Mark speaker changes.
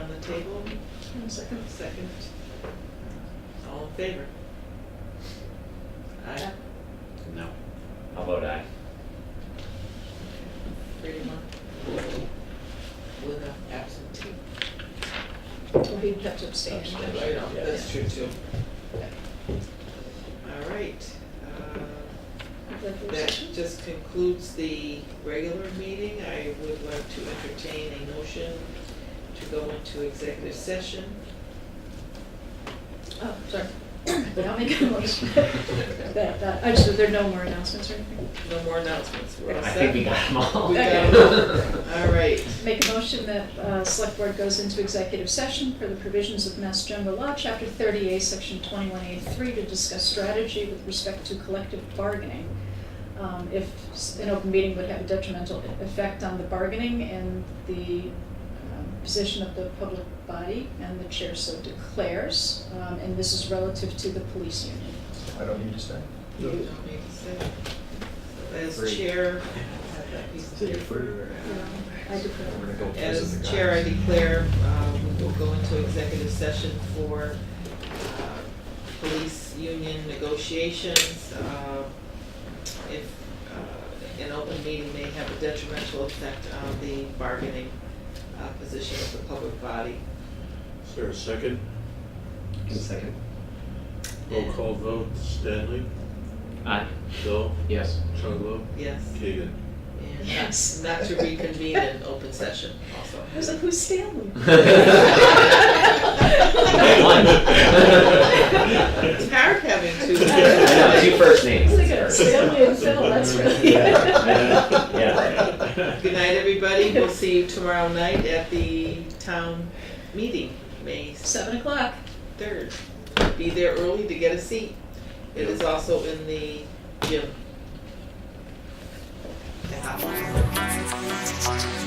Speaker 1: on the table? Second. Second. All in favor? Aye.
Speaker 2: No.
Speaker 3: I'll vote aye.
Speaker 1: Three to one. With an absentee.
Speaker 4: Well, he kept abstaining.
Speaker 3: Abstain.
Speaker 1: That's right,
Speaker 3: Yeah.
Speaker 1: That's true too. All right. uh, That just concludes the regular meeting. I would like to entertain a motion to go into executive session.
Speaker 4: Oh, sorry. But I'll make a motion. That, uh, I just, there are no more announcements or anything.
Speaker 1: No more announcements. We're all
Speaker 3: I think we
Speaker 1: set?
Speaker 3: got them all.
Speaker 1: We got 'em all. All right.
Speaker 4: Make a motion that uh, Select Board goes into executive session per the provisions of Mass General Law, Chapter 30A, Section 21A3, to discuss strategy with respect to collective bargaining. Um, If s- an open meeting would have a detrimental e- effect on the bargaining and the um, position of the public body, and the chair so declares, um, and this is relative to the police union.
Speaker 5: I don't need to say.
Speaker 1: You don't need to say. As chair, I have that piece of paper.
Speaker 4: Um, I declare.
Speaker 5: We're gonna go visit
Speaker 1: As
Speaker 5: the
Speaker 1: chair, I
Speaker 5: guys.
Speaker 1: declare, um, we'll go into executive session for uh, police union negotiations. Uh, If uh, an open meeting may have a detrimental effect on the bargaining uh, position of the public body.
Speaker 6: Is there a second?
Speaker 2: Second.
Speaker 6: Roll call vote, Stanley,
Speaker 3: Aye.
Speaker 6: Bill,
Speaker 2: Yes.
Speaker 6: Chunglo,
Speaker 1: Yes.
Speaker 6: Keegan.
Speaker 1: And
Speaker 4: Yes.
Speaker 1: Not to reconvene in open session also.
Speaker 4: I was like, who's Stanley?
Speaker 3: one.
Speaker 1: It's hard having two.
Speaker 3: No, two first names.
Speaker 4: It's like a Stanley and Phil, that's really.
Speaker 3: Yeah. Yeah.
Speaker 1: Good night, everybody. We'll see you tomorrow night at the town meeting, May
Speaker 4: Seven o'clock.
Speaker 1: third. Be there early to get a seat. It is also in the gym. The hot one.